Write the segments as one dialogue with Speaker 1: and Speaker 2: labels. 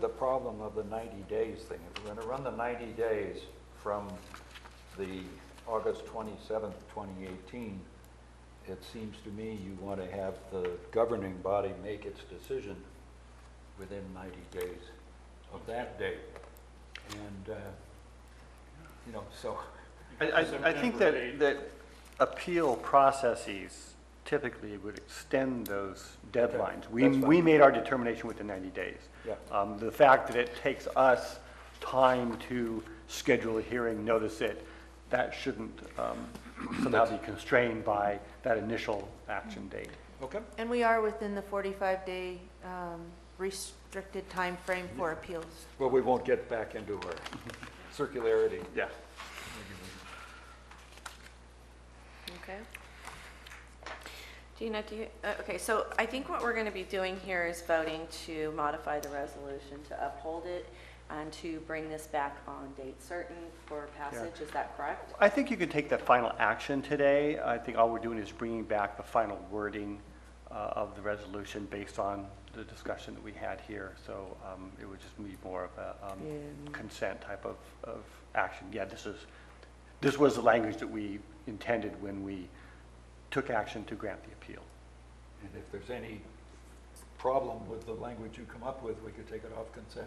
Speaker 1: The problem of the 90 days thing, if we're going to run the 90 days from the August 27th, 2018, it seems to me you want to have the governing body make its decision within 90 days of that date. And, uh, you know, so,
Speaker 2: I, I- I think that, that appeal processes typically would extend those deadlines. We,
Speaker 1: that's fine.
Speaker 2: we made our determination within 90 days.
Speaker 1: Yeah.
Speaker 2: Um, The fact that it takes us time to schedule a hearing, notice it, that shouldn't um, somehow be constrained by that initial action date.
Speaker 1: okay,
Speaker 3: And we are within the 45-day restricted time frame for appeals.
Speaker 1: well, we won't get back into our circularity.
Speaker 2: Yeah.
Speaker 4: Okay. Gina, do you, uh, okay, so I think what we're going to be doing here is voting to modify the resolution to uphold it and to bring this back on date certain for passage, is that correct?
Speaker 2: I think you can take that final action today. I think all we're doing is bringing back the final wording uh, of the resolution based on the discussion that we had here. So um, it would just be more of a um, consent type of, of action. Yeah, this is, this was the language that we intended when we took action to grant the appeal.
Speaker 1: And if there's any problem with the language you come up with, we could take it off consent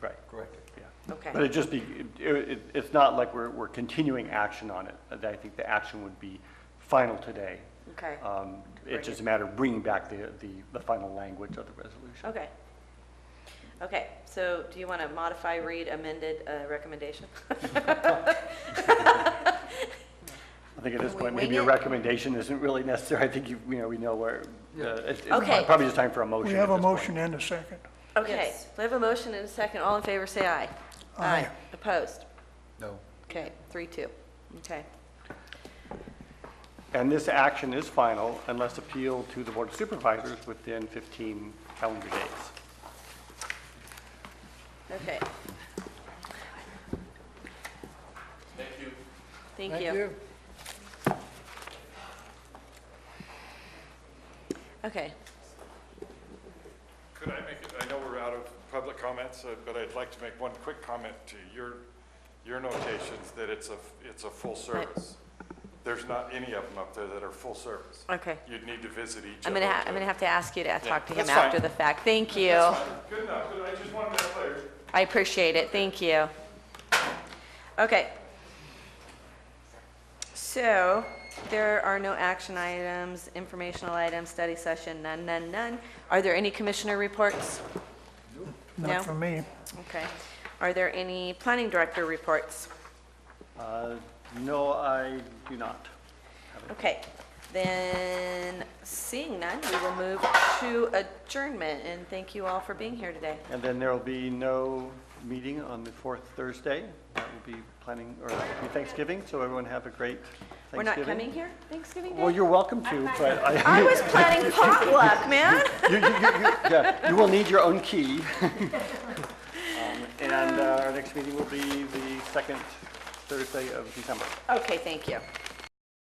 Speaker 2: Right,
Speaker 1: and correct it.
Speaker 2: yeah.
Speaker 4: Okay.
Speaker 2: But it just be, it- it- it's not like we're, we're continuing action on it. I think the action would be final today.
Speaker 4: Okay,
Speaker 2: Um,
Speaker 4: Bring
Speaker 2: It's just a matter of bringing back the, the, the final language of the resolution.
Speaker 4: okay. Okay, so do you want to modify, read amended uh, recommendation?
Speaker 2: I think at this
Speaker 3: Can we
Speaker 2: point, maybe a
Speaker 3: wing it?
Speaker 2: recommendation isn't really necessary. I think you, you know, we know where, uh,
Speaker 1: Yeah.
Speaker 2: it's, it's
Speaker 4: Okay.
Speaker 2: probably just time for a motion.
Speaker 5: We
Speaker 2: at
Speaker 5: have a
Speaker 2: this point.
Speaker 5: motion and a second.
Speaker 4: Okay,
Speaker 3: Yes.
Speaker 4: we have a motion and a second, all in favor, say aye.
Speaker 5: Aye.
Speaker 4: Opposed?
Speaker 1: No.
Speaker 4: Okay, three, two. Okay.
Speaker 2: And this action is final unless appealed to the Board of Supervisors within 15 calendar days.
Speaker 4: Okay. Thank you. Thank
Speaker 5: Thank
Speaker 4: you.
Speaker 5: you.
Speaker 4: Okay,
Speaker 6: Could I make, it? I know we're out of public comments, uh, but I'd like to make one quick comment to your, your notations that it's a, it's a full service. There's not any of them up there that are full service.
Speaker 4: okay.
Speaker 6: You'd need to visit each
Speaker 4: I'm
Speaker 6: of them.
Speaker 4: gonna, ha- I'm gonna have to ask you to talk to him
Speaker 6: that's fine.
Speaker 4: after the fact. Thank you.
Speaker 6: Good enough, but I just wanted that clear.
Speaker 4: I appreciate it, thank you. Okay. So, there are no action items, informational items, study session, none, none, none. Are there any commissioner reports? No.
Speaker 5: Not for me.
Speaker 4: Okay. Are there any planning director reports?
Speaker 2: Uh, No, I do not.
Speaker 4: Okay, then, seeing none, we will move to adjournment, and thank you all for being here today.
Speaker 2: And then there will be no meeting on the fourth Thursday. That will be planning, or that will be Thanksgiving, so everyone have a great Thanksgiving.
Speaker 4: We're not coming here Thanksgiving
Speaker 2: Well,
Speaker 4: Day?
Speaker 2: you're welcome to, but I...
Speaker 4: I was planning potluck, man.
Speaker 2: You, you, you, you- yeah, you will need your own key. Um, And uh, our next meeting will be the second Thursday of December.
Speaker 4: Okay, thank you.